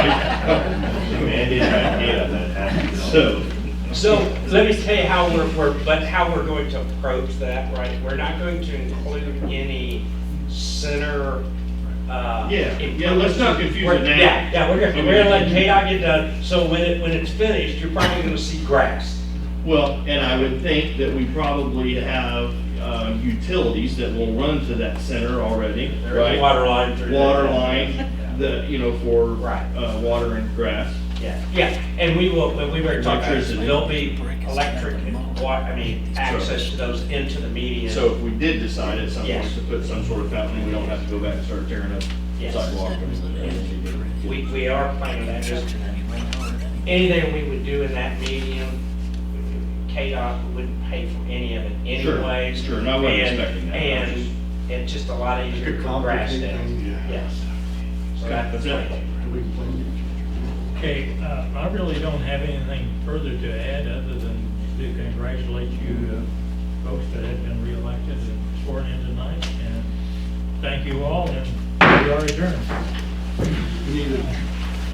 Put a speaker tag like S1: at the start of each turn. S1: Andy and I hate on that happening.
S2: So,
S3: So let me tell you how we're, we're, but how we're going to approach that, right? We're not going to include any center, uh.
S2: Yeah, yeah, let's not confuse it
S3: We're-
S2: now.
S3: Yeah, yeah, we're gonna, we're gonna let
S2: Okay.
S3: KDOT get done, so when it, when it's finished, you're probably gonna see grass.
S2: well, and I would think that we probably have uh, utilities that will run to that center already,
S3: There's a
S2: right?
S3: water line through. there.
S2: Water line, the, you know, for
S3: Right.
S2: uh, water and grass.
S3: Yeah, yeah, and we will, when we were talking, about this,
S2: Electricity.
S3: there'll be electric and water, I mean, access to those into the median.
S2: So if we did decide at some point
S3: Yes.
S2: to put some sort of fountain, we don't have to go back and start tearing up
S3: Yes.
S2: sidewalk. and-
S3: We, we are planning that, just anything we would do in that medium, KDOT wouldn't pay for any of it
S2: Sure,
S3: anyway.
S2: sure, and I wasn't
S3: And-
S2: expecting that.
S3: And it's just a lot easier to grass
S4: Complicate
S3: down,
S4: things, yeah.
S3: yes. So
S2: Okay,
S3: that's
S2: that's
S3: the
S2: it.
S3: plan.
S4: Do we plan
S5: Okay, uh, I really don't have anything further to add other than to congratulate you uh, folks that have been reelected and sworn in tonight. And thank you all, and we are adjourned.
S4: to- We need a